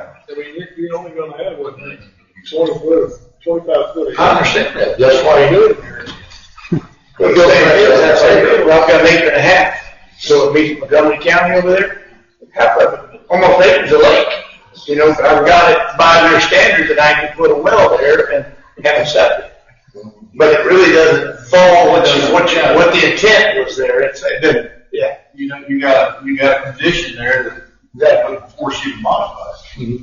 I mean, you- you're only gonna have what, twenty foot, twenty-five foot. I understand that, that's why you do it. But the thing is, that's like, well, I've got an acre and a half, so it meets Montgomery County over there, half of it, almost acres of lake. You know, if I've got it by their standards, and I can put a well there and have a septic. But it really doesn't fall what you, what you, what the intent was there, it's, it didn't, yeah. You know, you got, you got a condition there that, that would force you to modify it.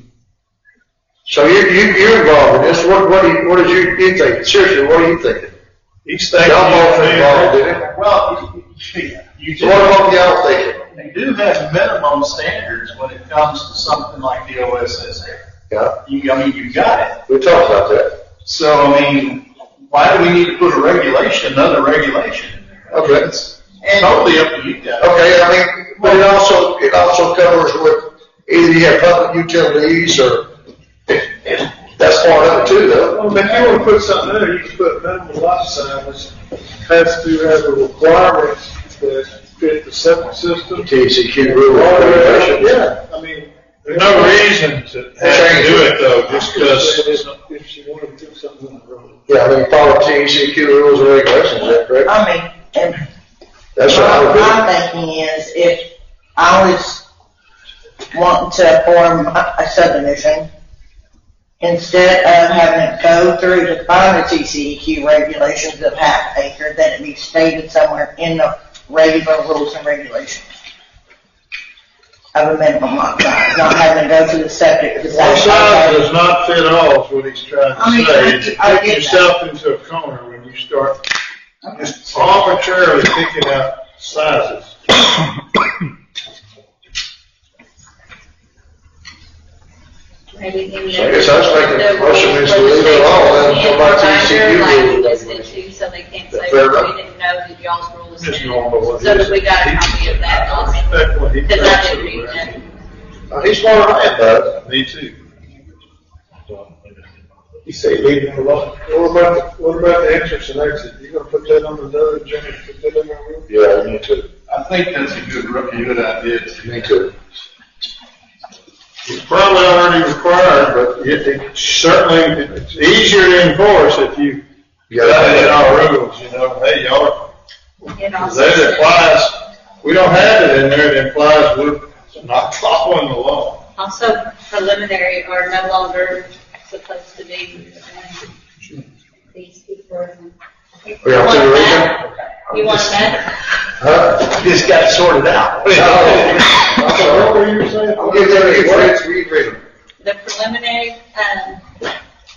So you, you, you're involved in this, what, what do you, what is you, you thinking, seriously, what are you thinking? Each Y'all both involved in it, Well, you- you so what do, about y'all thinking? you do have minimum standards when it comes to something like the OSSA. Yeah, You, I mean, you got it. we talked about that. So, I mean, why do we need to put a regulation, another regulation in there? Okay. It's Totally up to you guys. Okay, I mean, but it also, it also covers with either you have public utilities or, that's part of it too, though. Well, if you wanna put something in there, you can put minimum lot size, has to have the requirements that fit the septic system. TCQ rule. Yeah, I mean. There's no reason to have to do it though, just because, If you wanna do something on the road. Yeah, I mean, follow TCQ rules and regulations, is that correct? I mean, and That's what I what would I'm thinking is, if I was wanting to form a a subdivision, instead of having it go through to find the TCEQ E regulations of half acre, that it be stated somewhere in the regular rules and regulations of a minimum lot size, not having to go through the septic. the One septic- size does not fit all, is what he's trying I mean, I to say. get- I Take get that. yourself into a corner when you start just arbitrarily picking out sizes. Maybe give me So I a- guess I was thinking the motion rules is to leave it alone, and legislation somebody and see you rule that. reminder, like, this issue, so they can't say, Fair well, enough. we didn't know that y'all's rules. It's normal, what it So is. that we got a copy of that document, That's what he because I didn't thinks. read that. Uh, He's more than I am, bud. Me too. You say leave it alone? What about, the- what about the entrance and exit? You gonna put that on another agenda, put that in our room? Yeah, me too, I think that's a good, a good idea too. me too. It's probably already required, but it, it certainly, it's easier to enforce if you Yeah. got it in our rules, you know, hey, y'all, And also that said- implies, we don't have it in there, it implies we're not following the law. Also preliminary are no longer supposed to be, um, Oh, these before. We have to You want read that? them? You want that? Huh? Just got it sorted out. What were you saying? Oh. I'll give them your words, we read them. The preliminary, um,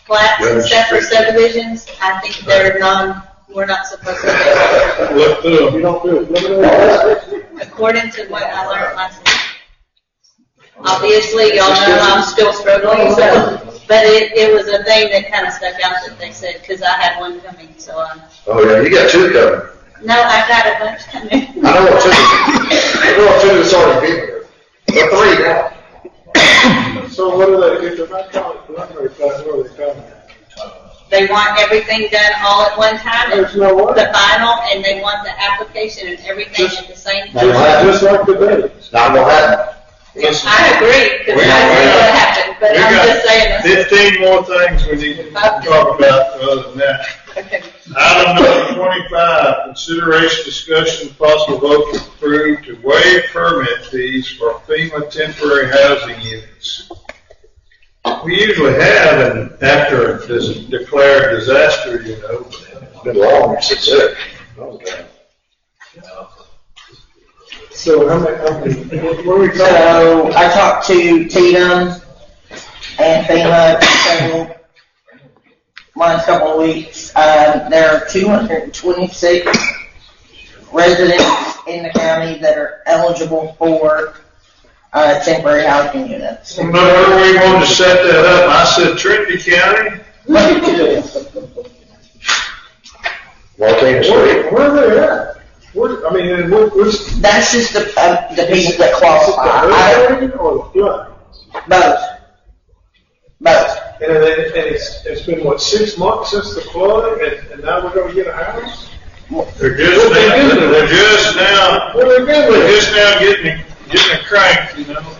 flats Yeah, and it's separate tricky. subdivisions, I think they're non, we're not supposed to Look through them. You don't do it. Look at that. do, according to what I learned last week. Obviously, y'all know I'm still struggling, so, but it, it was a thing that kind of stuck out that they said, because I had one coming, so I, Oh, yeah, you got two coming. no, I got a bunch coming. I know what two, I know what two has already been here, but three now. So what do they, if they're not calling it preliminary plat, what are they calling it? They want everything done all at one time. There's no way. The final, and they want the application and everything at the same Now, time. Just like today. Not gonna happen. I agree, because I see what happened, but We I'm got just saying this. Fifteen more things we need to talk about other than that. Okay. Item number twenty-five, consideration, discussion, possible vote to approve to waive permit fees for FEMA temporary housing units. We usually have an after a dis- declared disaster, you know. It's been long since then. So how many, how many, what are we So I talked to Tatum and FEMA so last couple of weeks. Um, there are 226 residents in the county that are eligible for uh, temporary housing units. Whenever we wanted to set that up, I said Trinity County. Martinez Street. where are they at? Where, I mean, and what, what's? That's just the, uh, the people that qualify. I, Is it the hurricane Or the flood? both. Both. And, it- and it's, it's been, what, six months since the flood, and, and now we're gonna get a house? they're just, now- they're just now, What are they they're doing? just now getting, getting a crank, you know?